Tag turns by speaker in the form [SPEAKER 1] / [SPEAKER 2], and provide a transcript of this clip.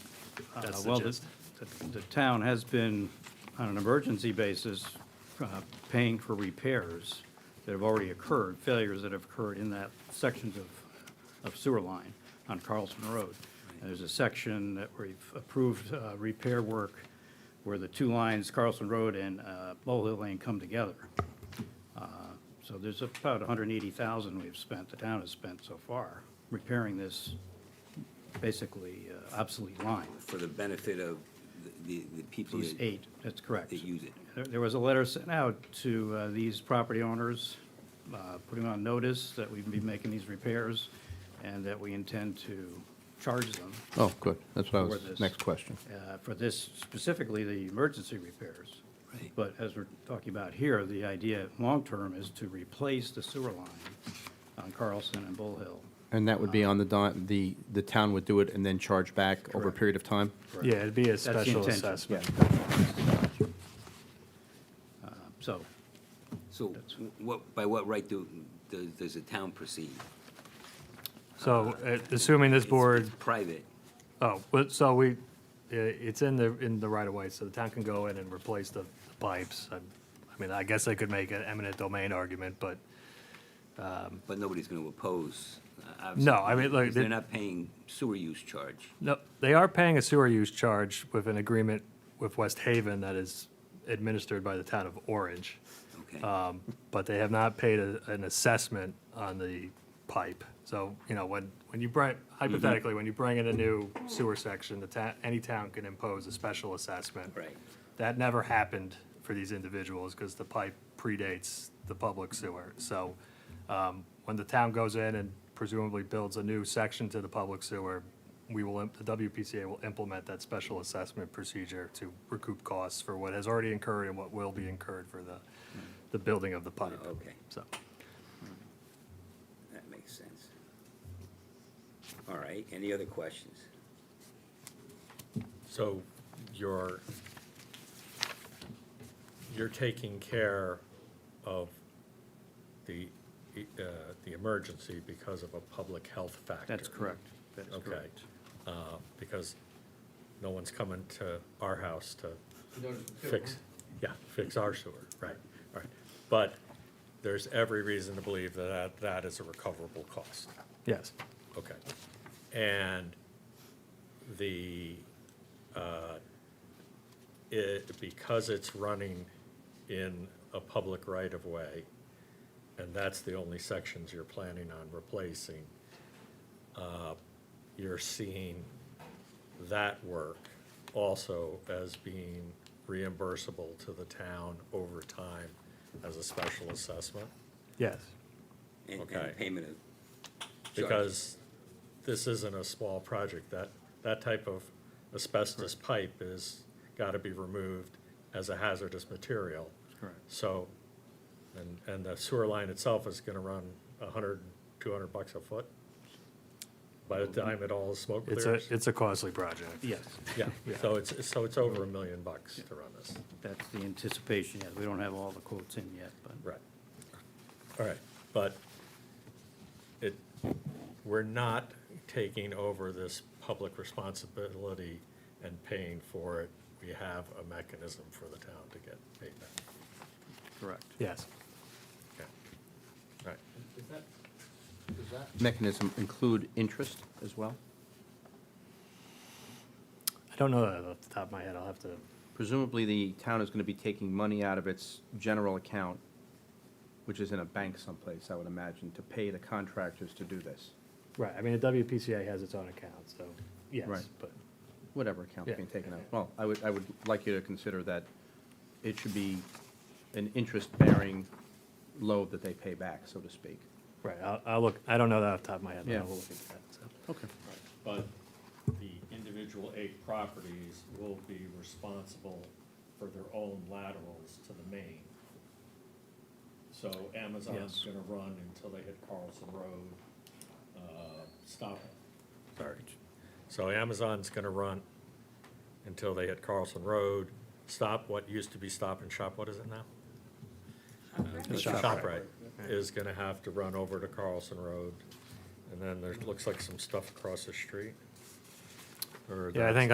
[SPEAKER 1] Uh,
[SPEAKER 2] That's the
[SPEAKER 1] Well, the,
[SPEAKER 2] gist.
[SPEAKER 1] the- the town has been, on an emergency basis, uh, paying for repairs that have already occurred, failures that have occurred in that sections of, of sewer line on Carlson Road. And there's a section that we've approved uh, repair work where the two lines, Carlson Road and uh, Bull Hill Lane, come together. Uh, So there's about 180,000 we've spent, the town has spent so far, repairing this basically uh, obsolete line.
[SPEAKER 3] for the benefit of the, the people
[SPEAKER 1] These
[SPEAKER 3] that
[SPEAKER 1] eight, that's correct.
[SPEAKER 3] that use it.
[SPEAKER 1] There- There was a letter sent out to uh, these property owners, uh, putting on notice that we'd be making these repairs and that we intend to charge them
[SPEAKER 4] Oh, good. That's what I
[SPEAKER 1] For
[SPEAKER 4] was,
[SPEAKER 1] this.
[SPEAKER 4] next question.
[SPEAKER 1] uh, for this, specifically the emergency repairs.
[SPEAKER 3] Right.
[SPEAKER 1] But as we're talking about here, the idea, long-term, is to replace the sewer line on Carlson and Bull Hill.
[SPEAKER 4] And that would be
[SPEAKER 1] Uh-huh.
[SPEAKER 4] on the, di- the, the town would do it and then charge back over a
[SPEAKER 1] Correct.
[SPEAKER 4] period of time?
[SPEAKER 1] Correct.
[SPEAKER 2] Yeah, it'd be a
[SPEAKER 1] the
[SPEAKER 2] special
[SPEAKER 1] intention.
[SPEAKER 2] assessment.
[SPEAKER 1] So,
[SPEAKER 3] So what, by what right do, does, does the town proceed?
[SPEAKER 2] So uh, assuming this
[SPEAKER 3] It's-
[SPEAKER 2] board,
[SPEAKER 3] it's Private,
[SPEAKER 2] oh, but, so we, i- it's in the, in the right of way, so the town can go in and replace the pipes. I I mean, I guess I could make an eminent domain argument, but
[SPEAKER 3] but nobody's gonna oppose. uh, obviously,
[SPEAKER 2] No, I mean, like,
[SPEAKER 3] because They're
[SPEAKER 2] the-
[SPEAKER 3] not paying sewer use charge.
[SPEAKER 2] No, they are paying a sewer use charge with an agreement with West Haven that is administered by the town of Orange.
[SPEAKER 3] Okay.
[SPEAKER 2] Um, But they have not paid a- an assessment on the pipe. So, you know, when, when you bring, hypothetically, when you bring in a new sewer section, the town, any town can impose a special assessment.
[SPEAKER 3] Right.
[SPEAKER 2] That never happened for these individuals because the pipe predates the public sewer. So um, when the town goes in and presumably builds a new section to the public sewer, we will, im- the WPCA will implement that special assessment procedure to recoup costs for what has already incurred and what will be incurred for the, the building of the pipe.
[SPEAKER 3] Okay.
[SPEAKER 2] So,
[SPEAKER 3] That makes sense. All right, any other questions?
[SPEAKER 5] So you're, you're taking care of the, uh, the emergency because of a public health factor?
[SPEAKER 1] that's correct. That is
[SPEAKER 5] Okay.
[SPEAKER 1] correct.
[SPEAKER 5] Uh, Because no one's coming to our house to fix, yeah, fix our sewer, right, right. But there's every reason to believe that that that is a recoverable cost.
[SPEAKER 2] yes.
[SPEAKER 5] Okay. And the, uh, it, because it's running in a public right-of-way, and that's the only sections you're planning on replacing, uh, you're seeing that work also as being reimbursable to the town over time as a special assessment?
[SPEAKER 2] Yes.
[SPEAKER 3] And,
[SPEAKER 5] Okay.
[SPEAKER 3] and payment of. charge.
[SPEAKER 5] because this isn't a small project. That, that type of asbestos pipe is, got to be removed as a hazardous material.
[SPEAKER 1] Correct.
[SPEAKER 5] So, and, and the sewer line itself is going to run 100, 200 bucks a foot by the time it all is smoke
[SPEAKER 2] It's a,
[SPEAKER 5] clears.
[SPEAKER 2] it's a costly project.
[SPEAKER 1] Yes,
[SPEAKER 5] Yeah, so it's, so it's over a million bucks to run this.
[SPEAKER 1] that's the anticipation, yes. We don't have all the quotes in yet, but.
[SPEAKER 5] Right. All right, but it, we're not taking over this public responsibility and paying for it. We have a mechanism for the town to get paid back.
[SPEAKER 1] Correct.
[SPEAKER 2] Yes.
[SPEAKER 5] Okay. All right,
[SPEAKER 4] Mechanism include interest as well?
[SPEAKER 2] I don't know that off the top of my head. I'll have to,
[SPEAKER 4] Presumably, the town is going to be taking money out of its general account, which is in a bank someplace, I would imagine, to pay the contractors to do this,
[SPEAKER 2] right, I mean, the WPCA has its own account, so, yes,
[SPEAKER 4] Right.
[SPEAKER 2] but.
[SPEAKER 4] whatever account's
[SPEAKER 2] Yeah.
[SPEAKER 4] being taken out. Well, I would, I would like you to consider that it should be an interest-bearing load that they pay back, so to speak.
[SPEAKER 2] Right, I'll, I'll look, I don't know that off the top of my head, but
[SPEAKER 4] Yeah.
[SPEAKER 2] I'll look into that, so.
[SPEAKER 4] Okay.
[SPEAKER 5] But the individual eight properties will be responsible for their own laterals to the main. So Amazon's
[SPEAKER 1] Yes.
[SPEAKER 5] gonna run until they hit Carlson Road, uh, stop it. Sorry. So Amazon's gonna run until they hit Carlson Road, stop what used to be Stop and Shop, what is it now? Uh, ShopRite is gonna have to run over to Carlson Road, and then there looks like some stuff across the street.
[SPEAKER 2] Yeah,
[SPEAKER 5] Or
[SPEAKER 2] I
[SPEAKER 5] that's-
[SPEAKER 2] think